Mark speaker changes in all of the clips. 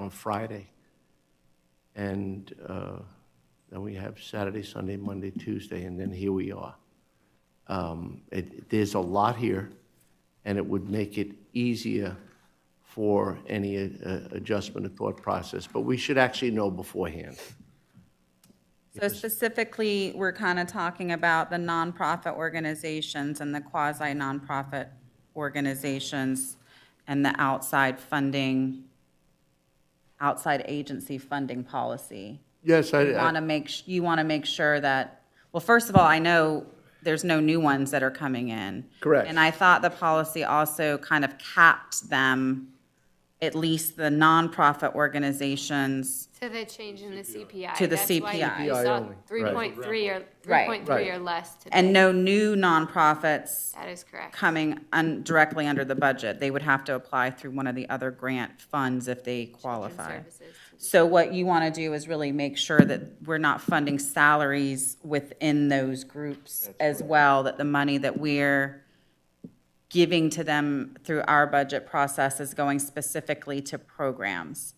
Speaker 1: on Friday. And uh, then we have Saturday, Sunday, Monday, Tuesday, and then here we are. Um, it- There's a lot here, and it would make it easier for any uh, adjustment of thought process, but we should actually know beforehand.
Speaker 2: So specifically, we're kind of talking about the nonprofit organizations and the quasi nonprofit organizations and the outside funding, outside agency funding policy.
Speaker 1: Yes, I,
Speaker 2: You want to make, s- you want to make sure that, well, first of all, I know there's no new ones that are coming in.
Speaker 1: Correct.
Speaker 2: And I thought the policy also kind of capped them, at least the nonprofit organizations.
Speaker 3: To the change in the CPI.
Speaker 2: To the
Speaker 3: That's why
Speaker 2: CPI.
Speaker 3: You
Speaker 1: CPI
Speaker 3: saw
Speaker 1: only,
Speaker 3: three point three or, three
Speaker 2: Right.
Speaker 3: point three
Speaker 1: Right.
Speaker 3: or less today.
Speaker 2: And no new nonprofits
Speaker 3: That is correct.
Speaker 2: coming un, directly under the budget. They would have to apply through one of the other grant funds if they qualify.
Speaker 3: Services.
Speaker 2: So what you want to do is really make sure that we're not funding salaries within those groups as well, that the money that we're giving to them through our budget process is going specifically to programs.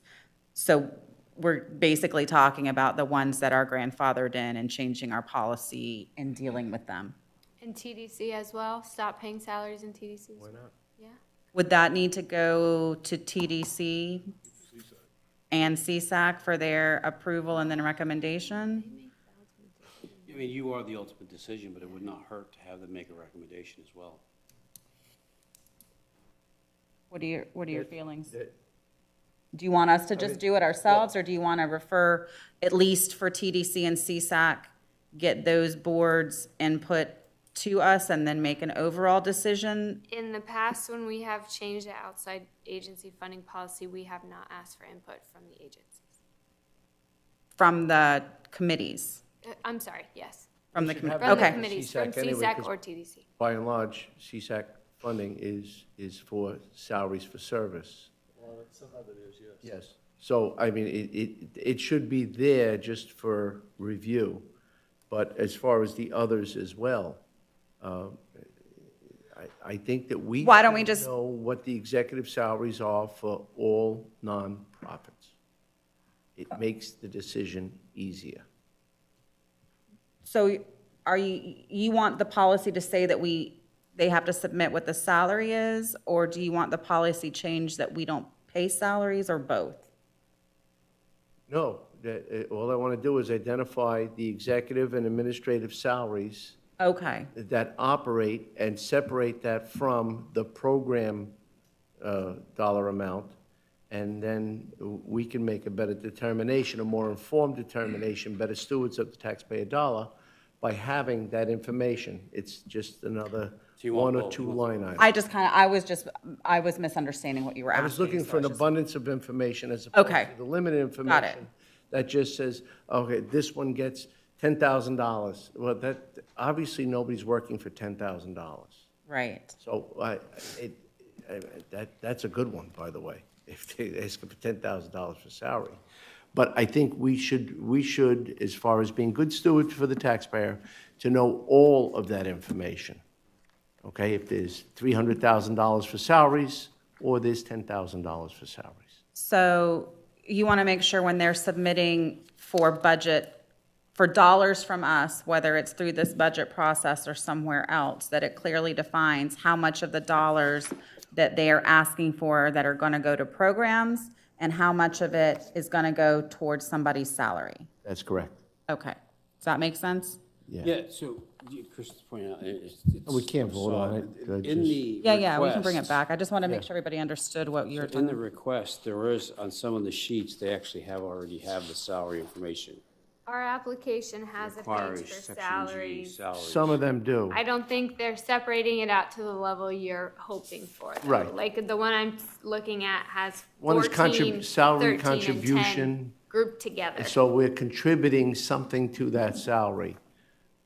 Speaker 2: So we're basically talking about the ones that are grandfathered in and changing our policy and dealing with them.
Speaker 3: And TDC as well, stop paying salaries in TDC. Why not? Yeah,
Speaker 2: Would that need to go to TDC and CSAC for their approval and then recommendation?
Speaker 4: I mean, you are the ultimate decision, but it would not hurt to have them make a recommendation as well.
Speaker 2: What are your, what are your feelings? Do you want us to just do it ourselves, or do you want to refer, at least for TDC and CSAC, get those boards' input to us and then make an overall decision?
Speaker 3: in the past, when we have changed the outside agency funding policy, we have not asked for input from the agencies.
Speaker 2: From the committees,
Speaker 3: Uh, I'm sorry, yes,
Speaker 2: from the,
Speaker 1: should
Speaker 2: commi-
Speaker 1: have
Speaker 3: from the
Speaker 2: okay,
Speaker 3: committees, from
Speaker 1: CSAC anyway,
Speaker 3: CSAC
Speaker 1: 'cause-
Speaker 3: E or TDC.
Speaker 1: by and large, CSAC funding is, is for salaries for service. Well, some of it is, yes. Yes. So, I mean, it, it, it should be there just for review, but as far as the others as well, um, I, I think that we.
Speaker 2: Why don't we
Speaker 1: should
Speaker 2: just-
Speaker 1: Know what the executive salaries are for all nonprofits. It makes the decision easier.
Speaker 2: so are you, you want the policy to say that we, they have to submit what the salary is? Or do you want the policy change that we don't pay salaries, or both?
Speaker 1: No, that, uh, all I want to do is identify the executive and administrative salaries
Speaker 2: Okay,
Speaker 1: that operate and separate that from the program uh, dollar amount, and then we can make a better determination, a more informed determination, better stewards of the taxpayer dollar by having that information. It's just another
Speaker 4: you want
Speaker 1: one or
Speaker 4: both?
Speaker 1: two line item.
Speaker 2: I just kind of, I was just, I was misunderstanding what you were
Speaker 1: I
Speaker 2: asking.
Speaker 1: was looking
Speaker 2: so
Speaker 1: for an
Speaker 2: it's just-
Speaker 1: abundance of information as opposed
Speaker 2: Okay.
Speaker 1: to the limited information that just says, okay, this one gets ten thousand dollars. Well, that, obviously, nobody's working for ten thousand dollars.
Speaker 2: Right,
Speaker 1: So I, it, I- that, that's a good one, by the way, if they ask for ten thousand dollars for salary. But I think we should, we should, as far as being good stewards for the taxpayer, to know all of that information. Okay, if there's three hundred thousand dollars for salaries, or there's ten thousand dollars for salaries.
Speaker 2: so you want to make sure when they're submitting for budget, for dollars from us, whether it's through this budget process or somewhere else, that it clearly defines how much of the dollars that they are asking for that are going to go to programs, and how much of it is going to go towards somebody's salary.
Speaker 1: That's correct.
Speaker 2: Okay, does that make sense?
Speaker 4: Yeah, so, you- Chris is pointing out, it- it's.
Speaker 1: We can't
Speaker 4: I
Speaker 1: vote
Speaker 4: saw
Speaker 1: on it, I
Speaker 4: In
Speaker 1: just-
Speaker 4: the.
Speaker 2: Yeah, yeah, we can bring it
Speaker 4: request-
Speaker 2: back. I just want to make sure everybody understood what you were
Speaker 4: In the
Speaker 2: talking.
Speaker 4: request, there is, on some of the sheets, they actually have, already have the salary information.
Speaker 3: Our application has a
Speaker 4: Requires
Speaker 3: page for
Speaker 4: section G,
Speaker 3: salaries.
Speaker 4: Salaries.
Speaker 1: Some of them do.
Speaker 3: I don't think they're separating it out to the level you're hoping for. though.
Speaker 1: Right.
Speaker 3: Like the one I'm looking at has
Speaker 1: One is contrib-
Speaker 3: 14,
Speaker 1: salary
Speaker 3: 13, and 10
Speaker 1: contribution.
Speaker 3: grouped together.
Speaker 1: So we're contributing something to that salary,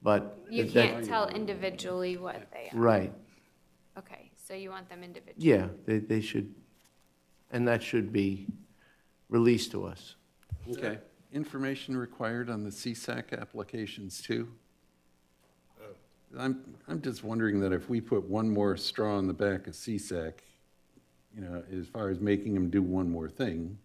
Speaker 1: but.
Speaker 3: You
Speaker 1: that- Mm.
Speaker 3: can't tell individually what they are.
Speaker 1: Right.
Speaker 3: Okay, so you want them individually.
Speaker 1: Yeah, they, they should, and that should be released to us.
Speaker 4: Okay.
Speaker 5: information required on the CSAC applications too? I'm, I'm just wondering that if we put one more straw in the back of CSAC, you know, as far as making them do one more thing,